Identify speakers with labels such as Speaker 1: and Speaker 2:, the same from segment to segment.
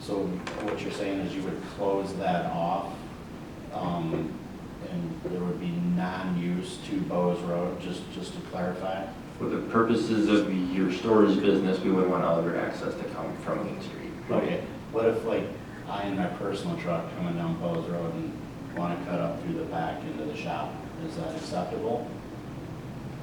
Speaker 1: So what you're saying is you would close that off, um, and there would be non-use to Bowes Road, just, just to clarify?
Speaker 2: For the purposes of your storage business, we would want other access to come from Main Street.
Speaker 1: Okay, what if like I and my personal truck coming down Bowes Road and wanna cut up through the back into the shop, is that acceptable?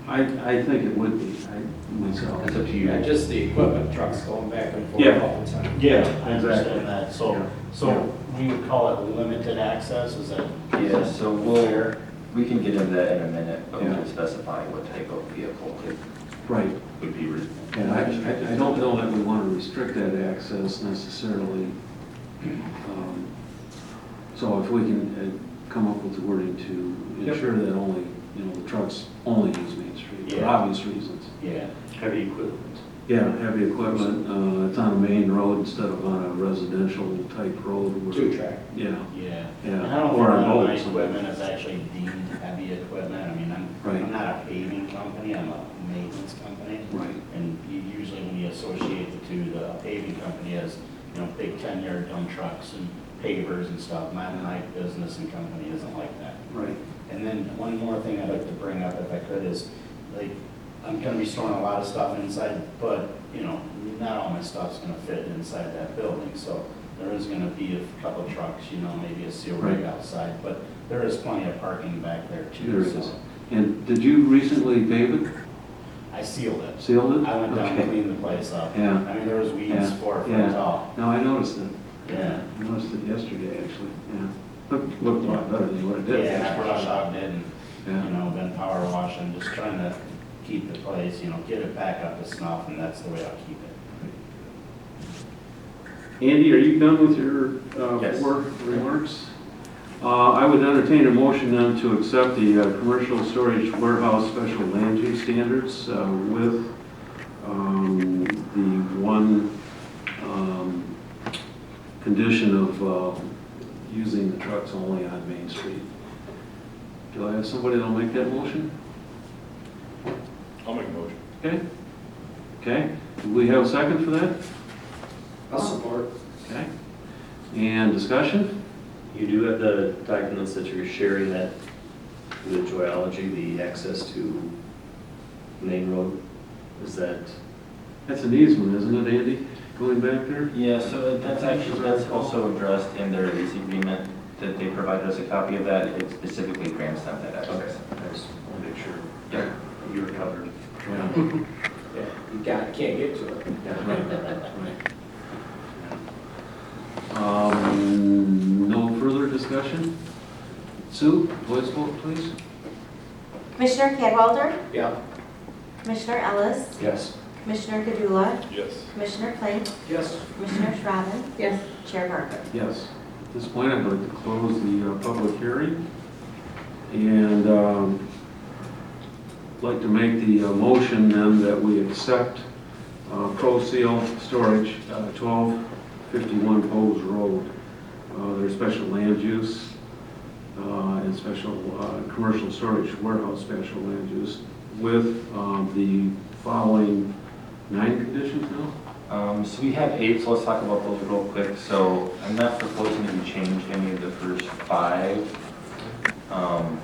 Speaker 3: I, I think it would be, I, myself.
Speaker 2: That's up to
Speaker 4: Yeah,
Speaker 2: you.
Speaker 4: just the equipment trucks going back and
Speaker 3: Yeah.
Speaker 4: forth all the time.
Speaker 3: Yeah,
Speaker 1: I understand that, so, so we would call it limited access, is that?
Speaker 2: Yeah, so we'll, we can get into that in a minute, but we
Speaker 3: Yeah.
Speaker 2: can specify what type of vehicle it
Speaker 3: Right,
Speaker 2: would be. re-
Speaker 3: and I, I I don't know that we want to restrict that access necessarily. Um, So if we can uh, come up with the wording to ensure that only, you know, the trucks only use Main Street, for
Speaker 1: Yeah.
Speaker 3: obvious reasons.
Speaker 1: Yeah,
Speaker 5: Heavy equipment.
Speaker 3: Yeah, heavy equipment, uh, it's on a main road instead of on a residential type road where.
Speaker 4: Two track.
Speaker 3: Yeah,
Speaker 1: yeah.
Speaker 3: Yeah,
Speaker 1: And I don't think
Speaker 3: or on
Speaker 1: none of my
Speaker 3: boats.
Speaker 1: equipment is actually deemed heavy equipment, I mean, I'm,
Speaker 3: Right.
Speaker 1: I'm not a paving company, I'm a maintenance company.
Speaker 3: right.
Speaker 1: And you- usually when you associate the two, the paving company as, you know, big ten-yard dump trucks and pavers and stuff. My, my business and company isn't like that.
Speaker 3: Right.
Speaker 1: And then one more thing I'd like to bring up if I could is, like, I'm gonna be storing a lot of stuff inside, but, you know, not all my stuff's gonna fit inside that building, so there is gonna be a couple trucks, you know, maybe a seal rig
Speaker 3: Right.
Speaker 1: outside, but there is plenty of parking back there
Speaker 3: There
Speaker 1: too,
Speaker 3: is.
Speaker 1: so.
Speaker 3: And did you recently pave it,
Speaker 1: I sealed it.
Speaker 3: sealed it?
Speaker 1: I went down
Speaker 3: Okay.
Speaker 1: and cleaned the place up.
Speaker 3: Yeah.
Speaker 1: I mean, there was weeds
Speaker 3: Yeah,
Speaker 1: four
Speaker 3: yeah.
Speaker 1: foot tall.
Speaker 3: No, I noticed it.
Speaker 1: Yeah.
Speaker 3: I noticed it yesterday, actually, yeah. Looked, looked a lot better than what it did.
Speaker 1: Yeah, I brush hogged it and, you
Speaker 3: Yeah,
Speaker 1: know, then power wash and just trying to keep the place, you know, get it back up to snuff and that's the way I'll keep it.
Speaker 3: Andy, are you done with your uh,
Speaker 2: Yes.
Speaker 3: work remarks? Uh, I would entertain a motion then to accept the uh, commercial storage warehouse special land use standards uh, with um, the one um, condition of uh, using the trucks only on Main Street. Do I have somebody that'll make that motion?
Speaker 5: I'll make a motion.
Speaker 3: Okay? Okay, do we have a second for that?
Speaker 4: I'll support.
Speaker 3: Okay? And discussion?
Speaker 5: You do have the documents that you're sharing that, the geology, the access to main road, is that?
Speaker 3: That's an easement, isn't it, Andy? Going back there?
Speaker 2: Yeah, so that's actually, that's also addressed in their lease agreement, that they provided us a copy of that, it specifically grants them that access.
Speaker 5: I just want to make sure
Speaker 2: Yeah.
Speaker 5: you're covered.
Speaker 3: Yeah.
Speaker 4: Yeah, you got, can't get to it.
Speaker 3: Um, no further discussion? Sue, voice vote, please.
Speaker 6: Commissioner Cadwalder,
Speaker 4: Yeah.
Speaker 6: Commissioner Ellis,
Speaker 4: Yes.
Speaker 6: Commissioner Gadula,
Speaker 5: Yes.
Speaker 6: Commissioner Plank,
Speaker 4: Yes.
Speaker 6: Commissioner Shrabbin. Yes. Chair Barker.
Speaker 3: Yes. At this point, I'd like to close the uh, public hearing and um, like to make the uh, motion then that we accept uh, Pro Seal Storage, uh, 1251 Bowes Road, uh, their special land use uh, and special, uh, commercial storage warehouse special land use with um, the following nine conditions now?
Speaker 2: Um, so we have eight, so let's talk about those real quick. So I'm not proposing that we change any of the first five. Um,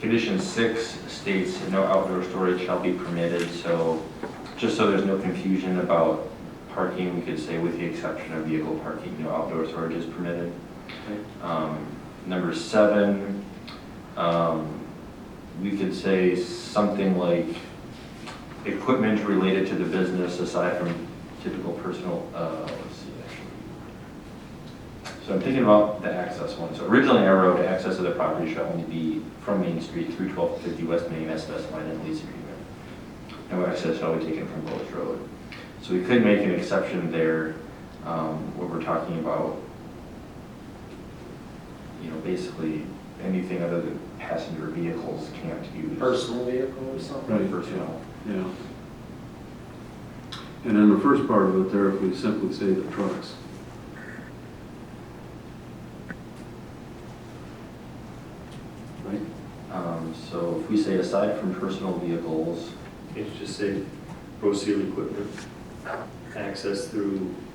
Speaker 2: Condition six states no outdoor storage shall be permitted, so just so there's no confusion about parking, we could say with the exception of vehicle parking, no outdoor storage is permitted. Um, Number seven, um, we could say something like, equipment related to the business aside from typical personal, uh, let's see, actually. So I'm thinking about the access one. So originally I wrote access to the property shall only be from Main Street through 1250 West Main as specified in the lease agreement. No access shall be taken from Bowles Road. So we could make an exception there, um, where we're talking about, you know, basically anything other than passenger vehicles can't use.
Speaker 4: Personal vehicle or something?
Speaker 3: Right.
Speaker 2: Personal.
Speaker 3: Yeah. And in the first part of it there, if we simply say the trucks. Right?
Speaker 2: Um, So if we say aside from personal vehicles,
Speaker 5: Can you just say, pro seal equipment, access through